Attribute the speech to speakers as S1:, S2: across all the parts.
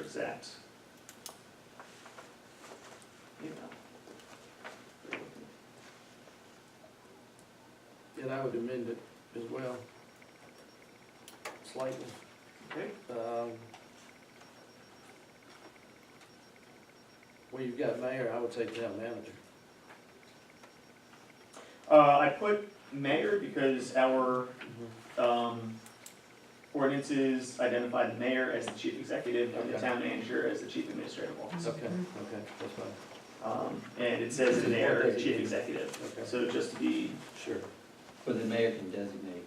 S1: exact. You know.
S2: And I would amend it as well, slightly.
S1: Okay,
S2: Um, Well, you've got mayor, I would say town manager.
S1: uh, I put mayor because our, um, ordinances identify the mayor as the chief executive and the
S2: Okay.
S1: town manager as the chief administrative officer.
S2: Okay, okay, that's fine,
S1: Um, and it says the mayor as chief executive,
S2: okay,
S1: so just to be,
S2: sure.
S3: But the mayor can designate.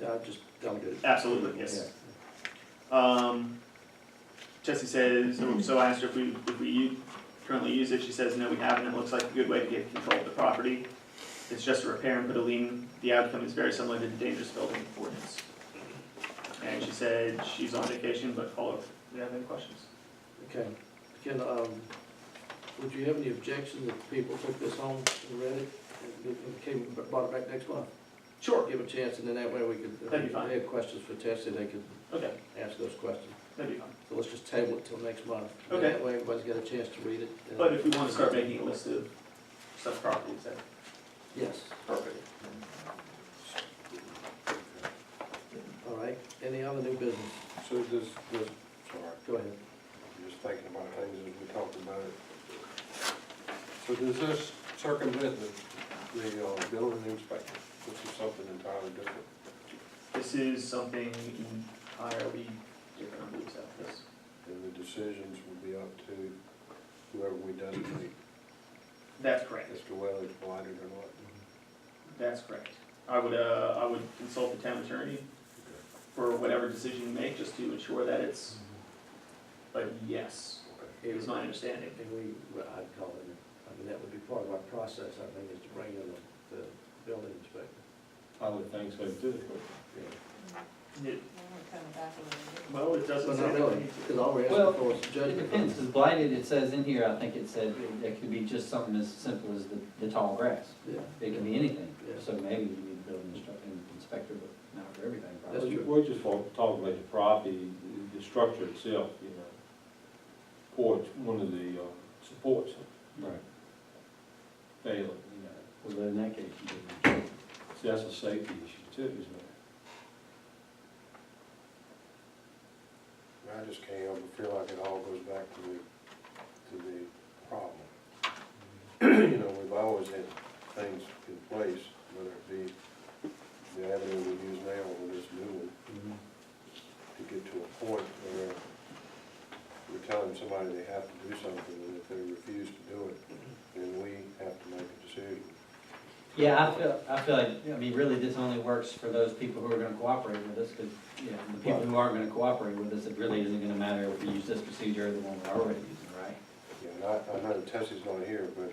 S2: Yeah, I just delegate.
S1: absolutely, yes. Um, Jesse says, so- so I asked her if we, if we u- currently use it, she says, no, we haven't, it looks like a good way to get control of the property. It's just a repair and put a lien, the outcome is very similar to the dangerous building ordinance. And she said she's on vacation, but call if you have any questions.
S2: Okay, can, um, would you have any objection if people took this home and read it and- and came, brought it back next month?
S1: Sure.
S2: Give a chance, and then that way we could, if
S1: That'd be fine.
S2: they have questions for Tessie, they could
S1: Okay,
S2: ask those questions.
S1: that'd be fine.
S2: So let's just table it till next month. And
S1: Okay.
S2: That way everybody's got a chance to read it. Uh, and-
S1: But if we want to start making a list of such properties, that's
S2: Yes,
S1: perfect.
S2: all right. Any other new business?
S4: So does, does, sorry,
S2: Go ahead.
S4: I'm just thinking about things as we talked about it. So does this circumvent the, the uh, building inspector, which is something entirely different?
S1: This is something entirely different, I believe, so, yes.
S4: And the decisions will be up to whoever we designate,
S1: That's correct.
S4: as to whether it's blighted or not.
S1: That's correct. I would, uh, I would consult the town attorney for whatever decision you make, just to ensure that it's, but yes, is my understanding.
S2: And we, well, I'd call it, I mean, that would be part of our process, I think, is to bring in the, the building inspector.
S3: I would think so too.
S2: Yeah.
S1: It-
S5: Coming back a
S1: Well,
S5: little bit.
S1: it doesn't
S2: But
S1: sound
S2: not
S1: like we
S2: really,
S1: need
S2: because all we're
S3: Well,
S2: asking for is
S3: It
S2: judgment.
S3: depends, 'cause blighted, it says in here, I think it said, it- it could be just something as simple as the, the tall grass.
S2: Yeah.
S3: It can be anything,
S2: Yeah.
S3: so maybe you need a building instru- an inspector, but not for everything,
S2: That's
S3: probably.
S2: true.
S6: We're just talking about the property, the structure itself, you know, porch, one of the uh, supports
S3: Right.
S6: failing, you
S3: Well, then in that case, you could,
S6: know. So that's a safety issue too, isn't it?
S4: I just can't help but feel like it all goes back to the, to the problem. You know, we've always had things in place, whether it be the avenue we use now or this new one,
S2: Mm-hmm.
S4: to get to a point where we're telling somebody they have to do something, and if they refuse to do it, then we have to make a decision.
S3: Yeah, I feel, I feel like, I mean, really, this only works for those people who are gonna cooperate with us, because, you know, the people who aren't gonna cooperate with us, it really isn't gonna matter if we use this procedure or the one we're already using, right?
S4: You know, and I, I know Tessie's not here, but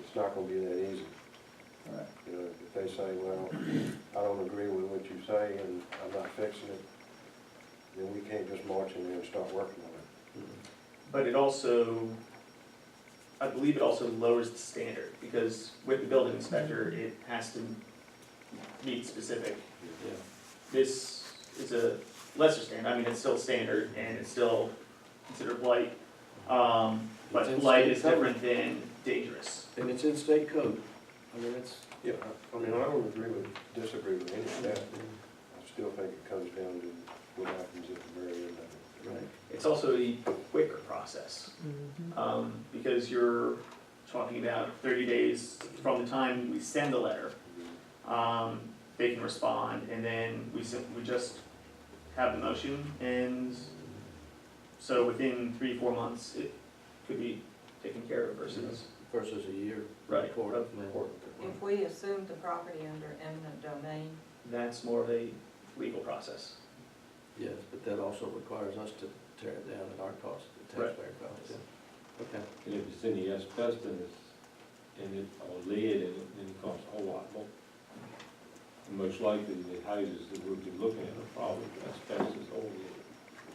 S4: it's not gonna be that easy.
S3: Right.
S4: You know, if they say, well, I don't agree with what you say and I'm not fixing it, then we can't just march in there and start working on it.
S1: But it also, I believe it also lowers the standard, because with the building inspector, it has to meet specific.
S2: Yeah.
S1: This is a lesser standard, I mean, it's still standard, and it's still considered light, um,
S2: It's
S1: but
S2: in
S1: light
S2: state
S1: is
S2: code.
S1: different than dangerous.
S2: And it's in state code. I mean, it's,
S4: Yeah, I mean, I don't agree with, disagree with any of that. I still think it comes down to what happens at the very end of it.
S2: right.
S1: It's also a quicker process, um, because you're talking about thirty days from the time we send the letter. Um, they can respond, and then we sim- we just have the motion, and so within three, four months, it could be taken care of versus.
S2: Versus a year.
S1: Right.
S2: Court.
S1: Of
S2: yeah.
S1: court.
S5: If we assumed the property under eminent domain,
S1: That's more of a legal process.
S2: Yes, but that also requires us to tear it down at our cost, the
S1: Right.
S2: taxpayer cost. yeah. Okay.
S6: And if it's any asbestos and it, or lead in it, then it costs a whole lot more. And most likely the houses that we've been looking at are probably asbestos or lead.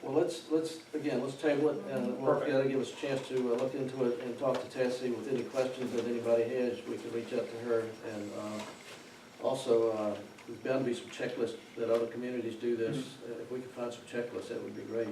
S2: Well, let's, let's, again, let's table it, and we'll,
S1: Perfect.
S2: that'll give us a chance to uh, look into it and talk to Tessie with any questions that anybody has, we can reach out to her, and, uh, also, uh, there's bound to be some checklists that other communities do this, Uh, if we could find some checklists, that would be great.